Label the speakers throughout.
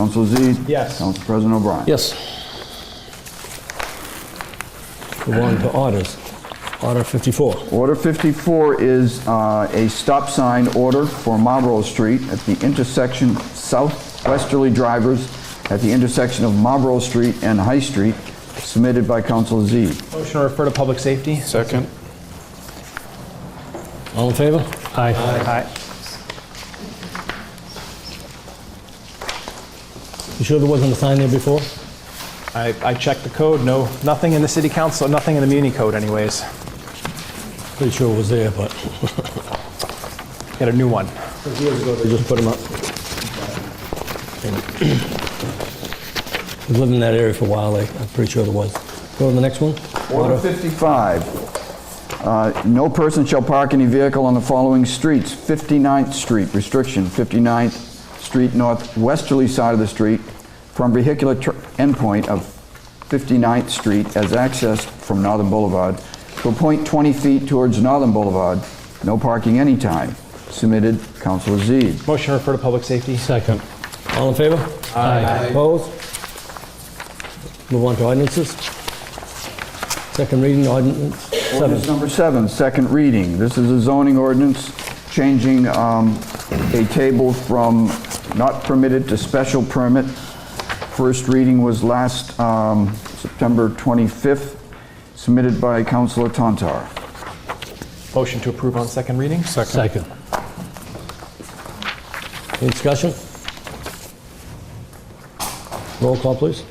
Speaker 1: Council Z?
Speaker 2: Yes.
Speaker 1: Council President O'Brien?
Speaker 3: Yes. Move on to orders. Order 54.
Speaker 1: Order 54 is uh, a stop sign order for Marlboro Street at the intersection southwesterly drivers at the intersection of Marlboro Street and High Street, submitted by Council Z.
Speaker 2: Motion to refer to public safety?
Speaker 4: Second?
Speaker 3: All in favor? Aye.
Speaker 2: Aye.
Speaker 3: You sure there wasn't a sign there before?
Speaker 2: I, I checked the code, no, nothing in the city council, nothing in the muni code anyways.
Speaker 3: Pretty sure it was there, but
Speaker 2: Get a new one.
Speaker 3: they just put them up. We've lived in that area for a while, like, I'm pretty sure there was. Go to the next one.
Speaker 1: Order 55. uh, No person shall park any vehicle on the following streets. 59th Street, restriction, 59th Street northwesterly side of the street from vehicular tr- endpoint of 59th Street as accessed from Northern Boulevard to a point 20 feet towards Northern Boulevard. No parking anytime. Submitted, Counselor Z.
Speaker 2: Motion to refer to public safety?
Speaker 3: Second. All in favor? Aye. Opposed? Move on to ordinances. Second reading ordinance seven.
Speaker 1: Ordinance number seven, second reading. This is a zoning ordinance changing um, a table from not permitted to special permit. First reading was last um, September 25th, submitted by Councilor Tantar.
Speaker 2: Motion to approve on second reading?
Speaker 3: Second. Any discussion? Roll call, please.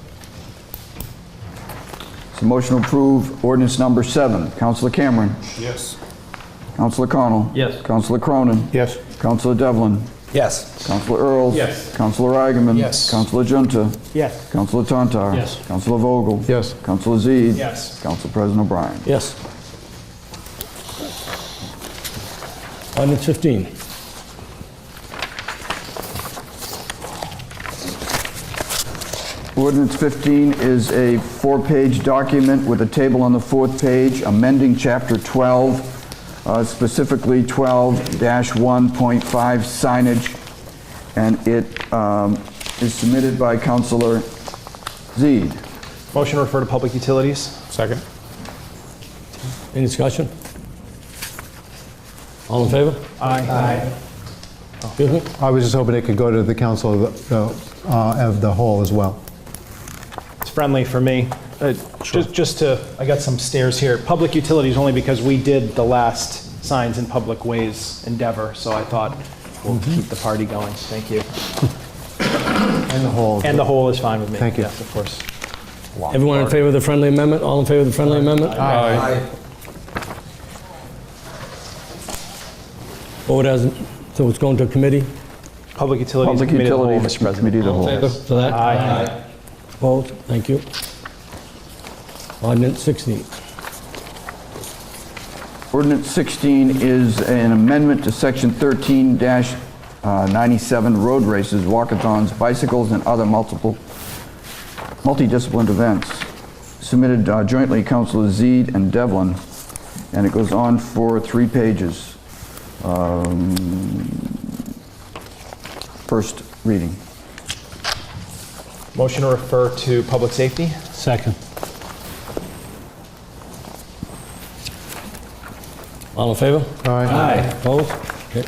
Speaker 1: So motion to approve ordinance number seven. Councilor Cameron.
Speaker 4: Yes.
Speaker 1: Councilor Connell. Yes. Councilor Cronin.
Speaker 4: Yes.
Speaker 1: Councilor Devlin.
Speaker 4: Yes.
Speaker 1: Councilor Earls.
Speaker 4: Yes.
Speaker 1: Councilor Agaman.
Speaker 4: Yes.
Speaker 1: Councilor Junta.
Speaker 2: Yes.
Speaker 1: Councilor Tantar.
Speaker 3: Yes.
Speaker 1: Councilor Vogel.
Speaker 4: Yes.
Speaker 1: Councilor Z.
Speaker 2: Yes.
Speaker 1: Council President O'Brien.
Speaker 3: Yes. Ordinance 15.
Speaker 1: Ordinance 15 is a four-page document with a table on the fourth page amending Chapter 12, uh, specifically 12-1.5 signage, and it um, is submitted by Councilor Zede.
Speaker 2: Motion to refer to public utilities?
Speaker 4: Second?
Speaker 3: Any discussion? All in favor?
Speaker 2: Aye.
Speaker 3: Excuse me?
Speaker 5: I was just hoping it could go to the council of the, uh, of the whole as well.
Speaker 2: It's friendly for me. Uh, Just, just to, I got some stairs here. Public utilities only because we did the last signs in public ways endeavor, so I thought we'll keep the party going. Thank you.
Speaker 5: And the whole.
Speaker 2: And the whole is fine with me.
Speaker 5: Thank you.
Speaker 2: Yes, of course.
Speaker 3: Everyone in favor of the friendly amendment? All in favor of the friendly amendment?
Speaker 4: Aye.
Speaker 3: Vote as, so it's going to committee
Speaker 2: Public utilities
Speaker 1: Public
Speaker 2: committee of the whole,
Speaker 1: Utilities
Speaker 2: Mr. President.
Speaker 1: Committee of the Whole.
Speaker 3: for that?
Speaker 2: Aye.
Speaker 3: Opposed? Thank you. Ordinance 16.
Speaker 1: Ordinance 16 is an amendment to Section 13-97 road races, walkathons, bicycles, and other multiple, multidisciplined events, submitted uh, jointly Councilor Zede and Devlin, and it goes on for three pages. Um, First reading.
Speaker 2: Motion to refer to public safety?
Speaker 3: Second. All in favor?
Speaker 5: Aye.
Speaker 3: Opposed? Okay.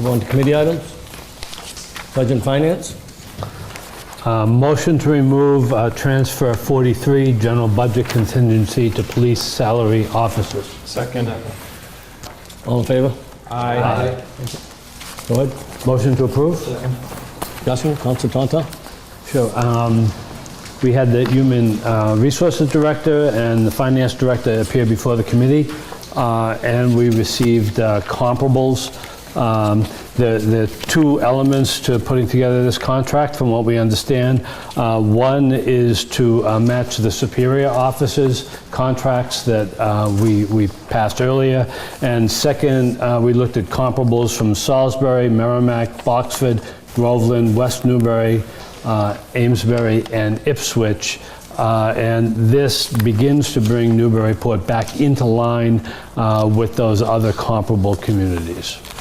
Speaker 3: Move on to committee items. Budget and Finance.
Speaker 6: Uh, Motion to remove uh, transfer 43, general budget contingency to police salary officers.
Speaker 2: Second.
Speaker 3: All in favor?
Speaker 2: Aye.
Speaker 3: Go ahead.
Speaker 6: Motion to approve?
Speaker 3: Discussion, Counsel Tonto?
Speaker 6: Sure. um, We had the Human uh, Resources Director and the Finance Director appear before the committee, uh, and we received uh, comparables. Um, The the two elements to putting together this contract, from what we understand, uh, one is to uh, match the Superior Office's contracts that uh, we we passed earlier, and second, uh, we looked at comparables from Salisbury, Merrimack, Boxford, Groveland, West Newbury, uh, Amesbury and Ipswich. uh, And this begins to bring Newburyport back into line uh, with those other comparable communities.